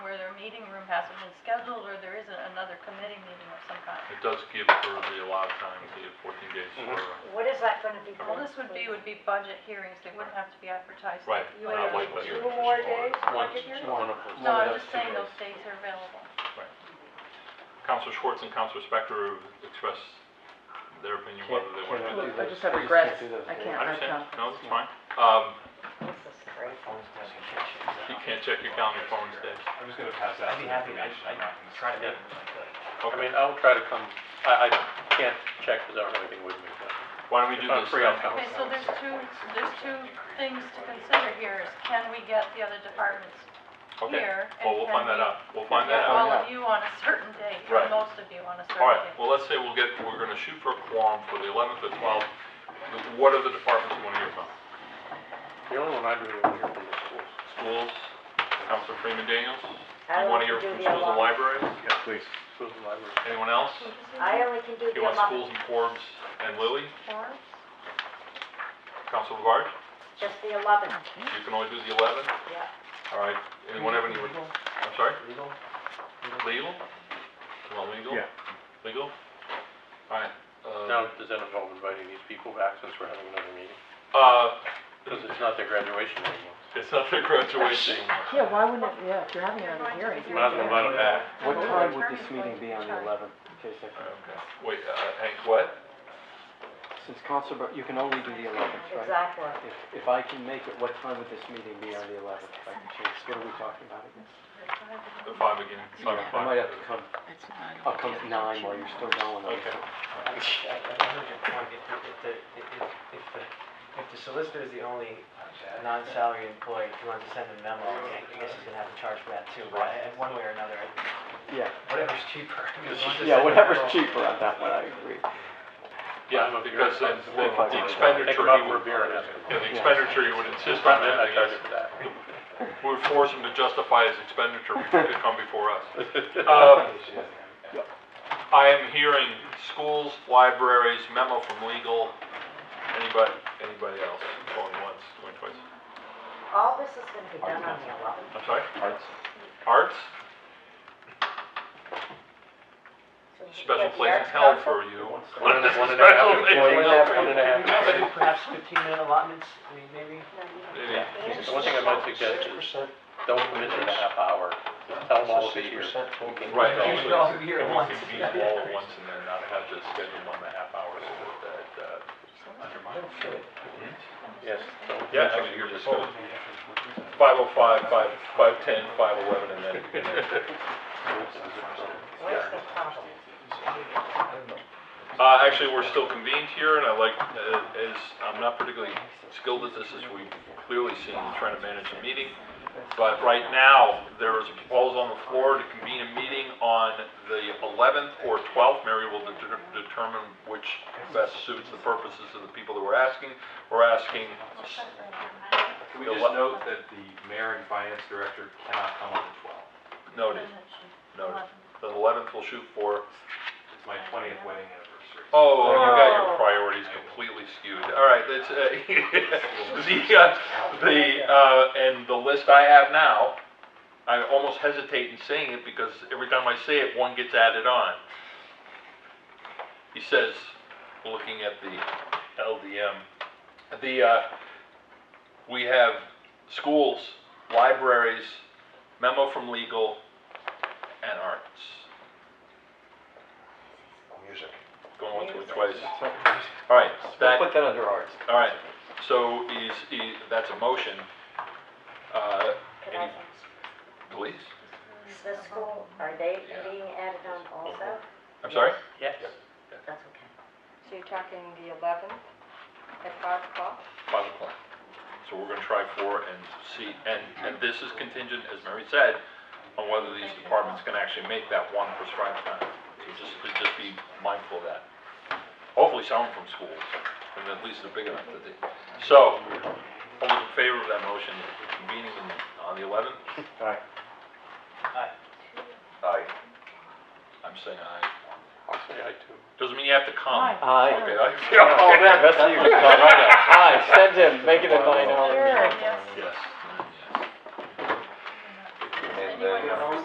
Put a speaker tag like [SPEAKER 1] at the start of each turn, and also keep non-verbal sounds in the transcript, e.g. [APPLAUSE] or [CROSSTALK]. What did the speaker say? [SPEAKER 1] room hasn't been scheduled, or there isn't another committee meeting of some kind.
[SPEAKER 2] It does give her the allowed time, the fourteen days for, uh,
[SPEAKER 3] What is that gonna be
[SPEAKER 1] All
[SPEAKER 3] called?
[SPEAKER 1] this would be, would be budget hearings, they wouldn't have to be advertised.
[SPEAKER 2] right,
[SPEAKER 3] You
[SPEAKER 2] not
[SPEAKER 3] have
[SPEAKER 2] like what
[SPEAKER 3] two
[SPEAKER 2] you're.
[SPEAKER 3] more days,
[SPEAKER 4] Once,
[SPEAKER 3] budget hearing?
[SPEAKER 4] one of
[SPEAKER 1] No, I'm just saying those dates are available.
[SPEAKER 2] Counselor Schwartz and Counselor Spector expressed their opinion whether they want to do
[SPEAKER 5] Look,
[SPEAKER 2] that.
[SPEAKER 5] I just have
[SPEAKER 4] We just
[SPEAKER 5] regrets.
[SPEAKER 4] can't do those
[SPEAKER 5] I
[SPEAKER 4] days.
[SPEAKER 5] can't,
[SPEAKER 2] I
[SPEAKER 5] I
[SPEAKER 2] understand,
[SPEAKER 5] can't.
[SPEAKER 2] no, it's fine. Um,
[SPEAKER 3] This is crazy.
[SPEAKER 2] you can't check your calendar for instead.
[SPEAKER 6] I'm just gonna pass out some
[SPEAKER 7] I'd be happy, I'd,
[SPEAKER 6] information. I'm not
[SPEAKER 7] I'd
[SPEAKER 6] gonna
[SPEAKER 7] try to
[SPEAKER 6] say
[SPEAKER 7] get
[SPEAKER 6] it.
[SPEAKER 7] them if I
[SPEAKER 4] I
[SPEAKER 7] could.
[SPEAKER 4] mean, I'll try to come, I, I can't check because I don't have anything with me, but.
[SPEAKER 2] Why don't we do
[SPEAKER 4] If I'm
[SPEAKER 2] this
[SPEAKER 4] free, I'll
[SPEAKER 2] then?
[SPEAKER 4] come.
[SPEAKER 1] Okay, so there's two, there's two things to consider here, is can we get the other departments
[SPEAKER 2] Okay,
[SPEAKER 1] here? and
[SPEAKER 2] well, we'll
[SPEAKER 1] can
[SPEAKER 2] find
[SPEAKER 1] we
[SPEAKER 2] that out, we'll find that
[SPEAKER 1] Get
[SPEAKER 2] out.
[SPEAKER 1] all of you on a certain date, or
[SPEAKER 2] Right.
[SPEAKER 1] most of you on a
[SPEAKER 2] All right,
[SPEAKER 1] certain date.
[SPEAKER 2] well, let's say we'll get, we're gonna shoot for a quorum for the eleventh or twelfth. What are the departments you wanna hear from?
[SPEAKER 4] The only one I do hear from the schools.
[SPEAKER 2] Schools, Counselor Freeman Daniels?
[SPEAKER 3] I
[SPEAKER 2] You wanna
[SPEAKER 3] only
[SPEAKER 2] hear
[SPEAKER 3] can
[SPEAKER 2] from
[SPEAKER 3] do the
[SPEAKER 2] schools and
[SPEAKER 3] 11th.
[SPEAKER 2] libraries?
[SPEAKER 4] Schools and libraries.
[SPEAKER 2] Anyone else?
[SPEAKER 3] I only can do the
[SPEAKER 2] You want schools
[SPEAKER 3] eleventh,
[SPEAKER 2] and Forbes and Lilly?
[SPEAKER 1] Four?
[SPEAKER 2] Counselor Labarge?
[SPEAKER 3] just the eleventh,
[SPEAKER 2] You can only do the eleventh?
[SPEAKER 3] yeah.
[SPEAKER 2] All right, anyone have any,
[SPEAKER 7] Legal?
[SPEAKER 2] I'm sorry,
[SPEAKER 7] Legal?
[SPEAKER 2] legal? You want legal?
[SPEAKER 4] Yeah.
[SPEAKER 2] Legal? All right, uh,
[SPEAKER 4] Now, does that involve inviting these people back since we're having another meeting?
[SPEAKER 2] uh,
[SPEAKER 4] Because it's not their graduation anymore.
[SPEAKER 2] it's not their graduation. [LAUGHS]
[SPEAKER 5] Yeah, why wouldn't it, yeah, if you're having
[SPEAKER 1] You're
[SPEAKER 5] another
[SPEAKER 1] going to
[SPEAKER 5] hearing.
[SPEAKER 1] be
[SPEAKER 4] We're not gonna invite them back.
[SPEAKER 1] What
[SPEAKER 5] Well,
[SPEAKER 1] time
[SPEAKER 5] the
[SPEAKER 1] would
[SPEAKER 5] attorney's
[SPEAKER 1] this
[SPEAKER 5] going
[SPEAKER 1] meeting
[SPEAKER 5] to
[SPEAKER 1] be on the
[SPEAKER 5] charge.
[SPEAKER 8] 11th, in case I can,
[SPEAKER 2] Okay, wait, uh, Hank, what?
[SPEAKER 8] since Council, but you can only do the 11th, right?
[SPEAKER 3] Exactly.
[SPEAKER 8] If, if I can make it, what time would this meeting be on the 11th, if I can change, what are we talking about again?
[SPEAKER 2] The five again, five
[SPEAKER 8] I might have
[SPEAKER 2] o'clock.
[SPEAKER 8] to come, I'll come at 9 while you're still going. on.
[SPEAKER 2] Okay.
[SPEAKER 7] I, I, I heard your point, if, the- if the, if, if the, if the solicitor is the only non-salary employee, if you want to send a memo, I guess he's gonna have to charge for that too, but I- I- one way or another, I-
[SPEAKER 8] Yeah,
[SPEAKER 7] whatever's cheaper. [LAUGHS] I mean, if you want to send
[SPEAKER 8] yeah,
[SPEAKER 7] a
[SPEAKER 8] whatever's
[SPEAKER 7] memo-
[SPEAKER 8] cheaper on that one, I agree.
[SPEAKER 2] Yeah, because then the the
[SPEAKER 8] Five o'clock.
[SPEAKER 2] expenditure he
[SPEAKER 4] Take them out for a
[SPEAKER 2] would,
[SPEAKER 4] beer and ask them.
[SPEAKER 2] yeah, the expenditure he would insist on
[SPEAKER 4] I
[SPEAKER 2] having
[SPEAKER 4] charge
[SPEAKER 2] is,
[SPEAKER 4] you for that.
[SPEAKER 2] we would force him to justify his expenditure before he could come before us.
[SPEAKER 4] [LAUGHS] Uh,
[SPEAKER 2] Um,
[SPEAKER 6] Uh,
[SPEAKER 2] I am hearing schools, libraries, memo from legal, anybody, anybody else, going once, going twice.
[SPEAKER 3] All this is gonna be done on the eleventh,
[SPEAKER 2] I'm sorry,
[SPEAKER 6] Arts.
[SPEAKER 2] arts,
[SPEAKER 3] so we
[SPEAKER 2] special
[SPEAKER 3] get the
[SPEAKER 2] place in
[SPEAKER 3] arts
[SPEAKER 2] hell
[SPEAKER 3] council.
[SPEAKER 2] for you.
[SPEAKER 4] One and a- one and a half
[SPEAKER 2] Special
[SPEAKER 4] employees,
[SPEAKER 2] meeting.
[SPEAKER 4] one and a half hours.
[SPEAKER 7] Perhaps fifteen minute allotments, I mean, maybe?
[SPEAKER 2] Yeah.
[SPEAKER 4] The one thing I might suggest is, don't commit to the half hour, just tell them all to be here.
[SPEAKER 2] Right.
[SPEAKER 4] Right.
[SPEAKER 7] You should all be here
[SPEAKER 2] And
[SPEAKER 7] at
[SPEAKER 2] we
[SPEAKER 7] once.
[SPEAKER 2] can beat them all at once and then not have to schedule one and a half hours that, uh, undermine.
[SPEAKER 4] Yes. don't-
[SPEAKER 2] Yeah, actually, you're just gonna, five oh five, five, five ten, five eleven, and then.
[SPEAKER 3] Where's the problem?
[SPEAKER 2] Uh, actually, we're still convened here, and I like, uh, as, I'm not particularly skilled at this, as we've clearly seen, in trying to manage a meeting. But right now, there is a proposal on the floor to convene a meeting on the eleventh or twelfth. Mary will deter- determine which best suits the purposes of the people that we're asking. We're asking,
[SPEAKER 6] Can we just note that the mayor and finance director cannot come on the twelfth?
[SPEAKER 2] noted, noted, the eleventh will shoot for,
[SPEAKER 6] It's my twentieth wedding anniversary.
[SPEAKER 2] oh, well, you got your priorities completely skewed. All right, that's, uh, [LAUGHS] the, uh, the, uh, and the list I have now, I almost hesitate in saying it because every time I say it, one gets added on. He says, looking at the LDM, the, uh, we have schools, libraries, memo from legal, and arts.
[SPEAKER 7] Music.
[SPEAKER 2] Going once, going twice. All right,
[SPEAKER 8] We'll
[SPEAKER 2] that,
[SPEAKER 8] put that under arts.
[SPEAKER 2] all right, so is, is, that's a motion. Uh,
[SPEAKER 3] Can I,
[SPEAKER 2] please?
[SPEAKER 3] the school, are they being added on also?
[SPEAKER 2] I'm sorry?
[SPEAKER 4] Yes.
[SPEAKER 3] That's okay.
[SPEAKER 9] So you're talking the eleventh at five o'clock?
[SPEAKER 2] Five o'clock. So we're gonna try four and see, and, and this is contingent, as Mary said, on whether these departments can actually make that one prescribed time. So just, just be mindful of that. Hopefully someone from schools, and at least they're big enough to do. So, all those in favor of that motion, convening in- on the eleventh?
[SPEAKER 6] Aye.
[SPEAKER 7] Aye.
[SPEAKER 2] Aye. I'm saying aye.
[SPEAKER 4] I'll say I too.
[SPEAKER 2] Doesn't mean you have to come.
[SPEAKER 5] Aye.
[SPEAKER 8] Aye.
[SPEAKER 2] Okay, I [LAUGHS]
[SPEAKER 8] Oh, man, that's you. Aye, send him, make it a 9 hour.
[SPEAKER 1] Yes.
[SPEAKER 2] Yeah.